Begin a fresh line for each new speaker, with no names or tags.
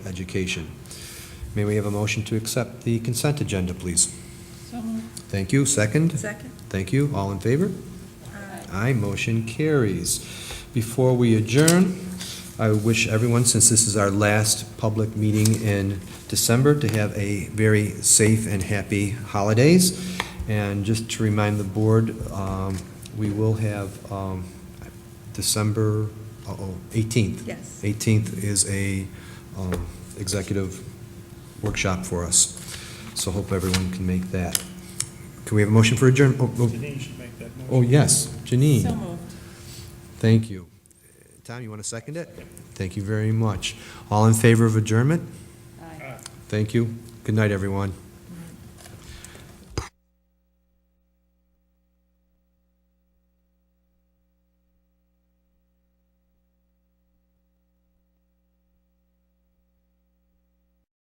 Education. May we have a motion to accept the consent agenda, please?
So moved.
Thank you. Second?
Second?
Thank you. All in favor?
Uh,
Aye.
Aye, motion carries. Before we adjourn, I wish everyone, since this is our last public meeting in December, to have a very safe and happy holidays. And just to remind the board, um, we will have um, December, uh-oh, 18th.
Yes.
18th is a um, executive workshop for us, so hope everyone can make that. Can we have a motion for adjourn? oh, oh,
Janine should make that motion.
Oh, yes,
So
Janine,
moved.
thank you. Tom, you want to second it? Thank you very much. All in favor of adjournment?
Aye.
Thank you. Good night, everyone.